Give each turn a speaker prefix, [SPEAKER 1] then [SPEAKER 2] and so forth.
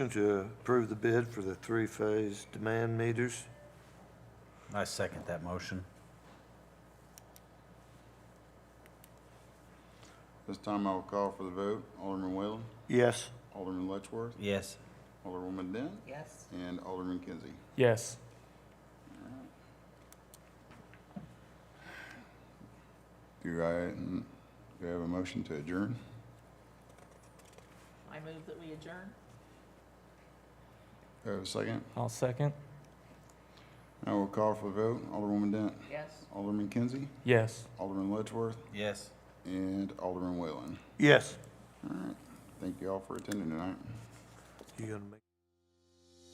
[SPEAKER 1] To approve the bid for the three-phase demand meters.
[SPEAKER 2] I second that motion.
[SPEAKER 3] This time I will call for the vote. Alderman Whalen,
[SPEAKER 1] Yes.
[SPEAKER 3] Alderman Letchworth,
[SPEAKER 2] Yes.
[SPEAKER 3] Alderwoman Dent,
[SPEAKER 4] Yes.
[SPEAKER 3] and Alderman Kinsey.
[SPEAKER 5] Yes.
[SPEAKER 3] Do I, mm, do I have a motion to adjourn?
[SPEAKER 4] I move that we adjourn.
[SPEAKER 3] Do I have a second?
[SPEAKER 5] I'll second.
[SPEAKER 3] I will call for the vote. Alderwoman Dent,
[SPEAKER 4] Yes.
[SPEAKER 3] Alderman Kinsey,
[SPEAKER 5] Yes.
[SPEAKER 3] Alderman Letchworth,
[SPEAKER 2] Yes.
[SPEAKER 3] and Alderman Whalen.
[SPEAKER 1] Yes.
[SPEAKER 3] All right. Thank you all for attending tonight.
[SPEAKER 1] You gonna make?